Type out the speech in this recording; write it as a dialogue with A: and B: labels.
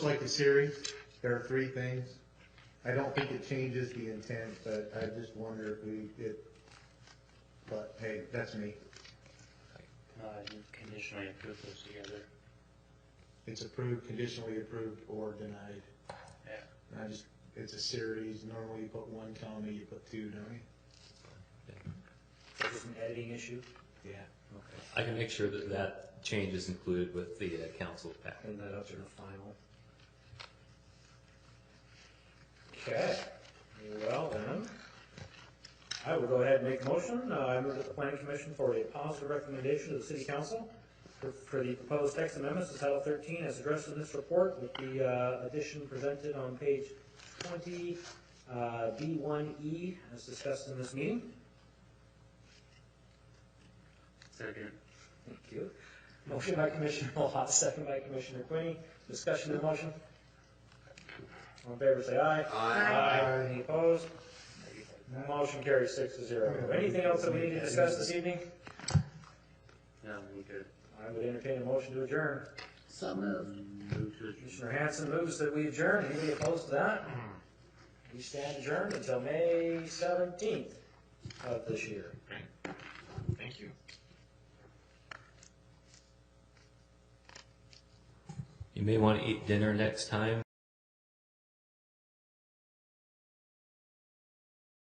A: like the series, there are three things. I don't think it changes the intent, but I just wonder if we, it, but hey, that's me.
B: Uh, you conditionally approve those together.
A: It's approved, conditionally approved, or denied.
B: Yeah.
A: And I just, it's a series, normally you put one comma, you put two, don't you?
B: Is this an editing issue?
A: Yeah.
B: Okay.
C: I can make sure that that change is included with the uh, council packet.
B: Bring that up to the final. Okay, well then, I will go ahead and make a motion. Uh, I move that the planning commission for a positive recommendation to the city council for, for the proposed text amendments to title thirteen as addressed in this report with the, uh, addition presented on page twenty, uh, B one E as discussed in this meeting.
D: Second.
B: Thank you. Motion by Commissioner Mohat, second by Commissioner Quinnie. Discussion of the motion? All in favor, say aye.
A: Aye.
B: Any opposed? Motion carries six to zero. Anything else that we need to discuss this evening?
D: Yeah, we good.
B: I would entertain a motion to adjourn.
D: So moved. Move to adjourn.
B: Commissioner Hanson moves that we adjourn. Anybody opposed to that? We stand adjourned until May seventeenth of this year.
C: Thank you. You may want to eat dinner next time.